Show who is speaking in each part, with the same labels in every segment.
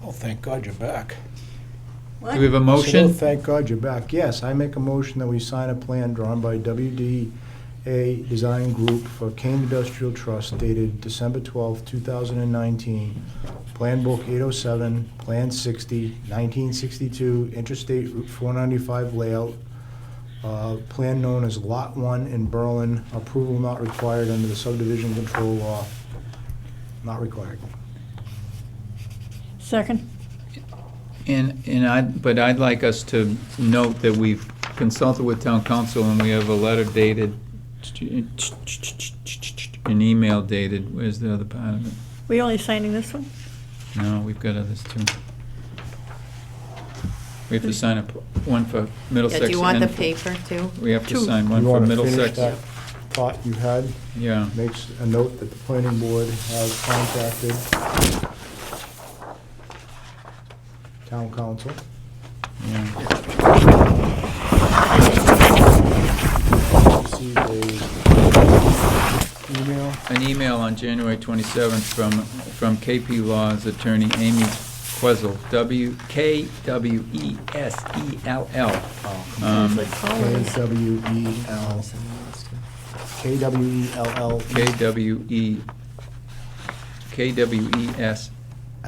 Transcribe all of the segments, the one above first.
Speaker 1: Well, thank God you're back.
Speaker 2: What?
Speaker 3: Do we have a
Speaker 4: Hello,
Speaker 3: motion?
Speaker 4: Thank God you're back. Yes, I make a motion that we sign a plan drawn by WDA Design Group for Kane Industrial Trust dated December twelfth, two thousand and nineteen. Plan Book eight oh seven, Plan 60, 1962, Interstate Route four ninety-five layout. Uh, Plan known as Lot One in Berlin, approval not required under the subdivision control law. Not required.
Speaker 2: Second.
Speaker 3: And, and I, but I'd like us to note that we've consulted with town council and we have a letter dated, an email dated, where's the other part of it?
Speaker 2: We only signing this one?
Speaker 3: No, we've got others too. We have to sign up, one for
Speaker 5: Yeah,
Speaker 3: Middlesex.
Speaker 5: do you want the
Speaker 3: and-
Speaker 5: paper too?
Speaker 3: We have to
Speaker 2: Two.
Speaker 3: sign one
Speaker 4: You
Speaker 3: for
Speaker 4: wanna finish
Speaker 3: Middlesex.
Speaker 4: that Thought you had?
Speaker 3: Yeah,
Speaker 4: makes a note that the planning board has contacted town council.
Speaker 3: yeah.
Speaker 4: Received a email.
Speaker 3: An email on January 27th from, from KP Law's attorney Amy Questle, W, K W E S E L L. Um,
Speaker 2: Like
Speaker 4: K
Speaker 2: Collins.
Speaker 4: W E L, K W E L L
Speaker 3: K W E, K W E S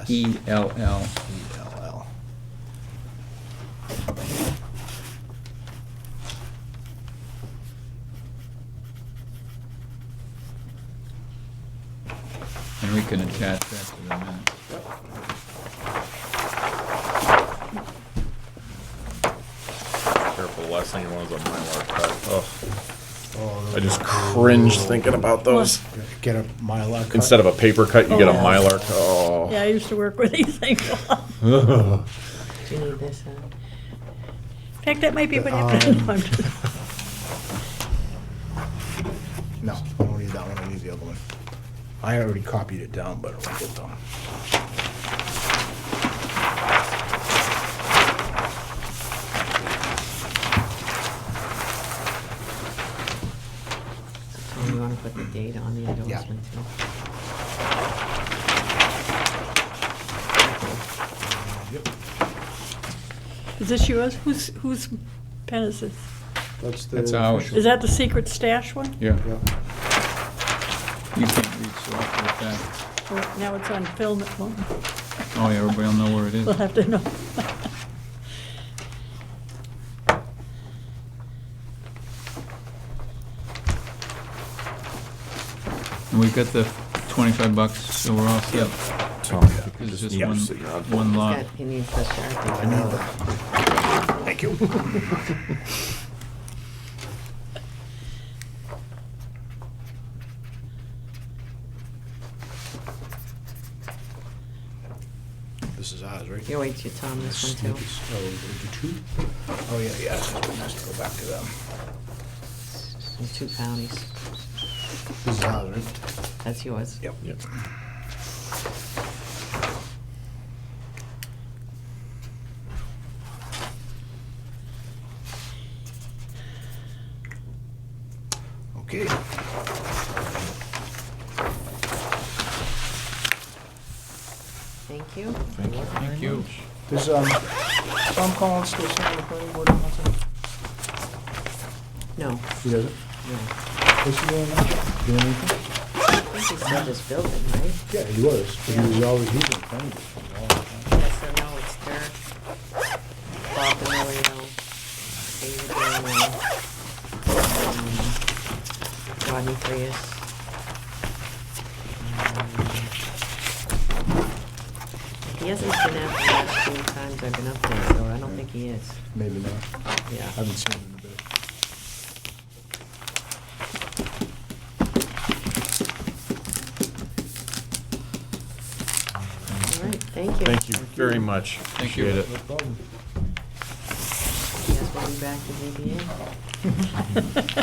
Speaker 3: E L
Speaker 4: E
Speaker 3: L.
Speaker 4: L L.
Speaker 3: And we can attach that to the minute.
Speaker 6: Careful, last thing you want is a Mylar cut. Ugh,
Speaker 4: Oh, those
Speaker 6: I just cringe thinking about those.
Speaker 4: Get a Mylar cut.
Speaker 6: Instead of a paper cut, you get a
Speaker 2: Oh.
Speaker 6: Mylar. cut. Oh.
Speaker 2: Yeah, I used to work with these things. In
Speaker 5: Do you need this? uh,
Speaker 2: fact, that might be what
Speaker 3: Uh,
Speaker 2: happened. No, I'm just-
Speaker 4: No, I don't need that one, I need the other one. I already copied it down, but I'll get down.
Speaker 5: Do you want to put the date on the endorsement too?
Speaker 4: Yep,
Speaker 2: Is this yours? Whose, whose pen is this?
Speaker 4: that's the.
Speaker 3: That's ours.
Speaker 4: official.
Speaker 2: Is that the secret stash one?
Speaker 3: Yeah,
Speaker 4: Yeah.
Speaker 3: you can't reach off with that.
Speaker 2: Or Now it's on film at home.
Speaker 3: Oh, yeah, everybody will know where it is.
Speaker 2: We'll have to know.
Speaker 3: And we've got the 25 bucks, so we're all set.
Speaker 6: Oh, Tom,
Speaker 3: It's
Speaker 6: just
Speaker 3: just
Speaker 6: need to
Speaker 3: one,
Speaker 6: sit down.
Speaker 3: one lot.
Speaker 5: He needs the
Speaker 4: I
Speaker 5: Sharpie.
Speaker 4: need that. Thank you. This is ours, right?
Speaker 5: You wait, till you Tom, this one too.
Speaker 4: Sneakers. Oh, we do two? Oh, yeah, yeah, this one has to go back to them.
Speaker 5: In two counties.
Speaker 4: This is ours, right?
Speaker 5: That's yours.
Speaker 4: Yep.
Speaker 6: Yep.
Speaker 4: Okay.
Speaker 5: Thank you.
Speaker 3: Thank you.
Speaker 4: Does, um, Tom Collins still sign the planning board? on that?
Speaker 5: No, no.
Speaker 4: He doesn't?
Speaker 5: I
Speaker 4: What's he doing now? Doing anything?
Speaker 5: think he's in this building, right?
Speaker 4: Yeah, he was, but he was always, he was in planning board for a long time.
Speaker 5: Yes, so now it's Dirk, Bob Emilio, David Daniel, um, Rodney Frias. Um, He hasn't been out the last few times I've been up there, so I don't think he is.
Speaker 4: Maybe not.
Speaker 5: Yeah.
Speaker 4: Haven't seen him in a bit.
Speaker 5: All right, thank you.
Speaker 6: Thank you very much.
Speaker 3: Thank you.
Speaker 6: Appreciate it.
Speaker 4: No problem.
Speaker 5: You guys want me back to ZBA?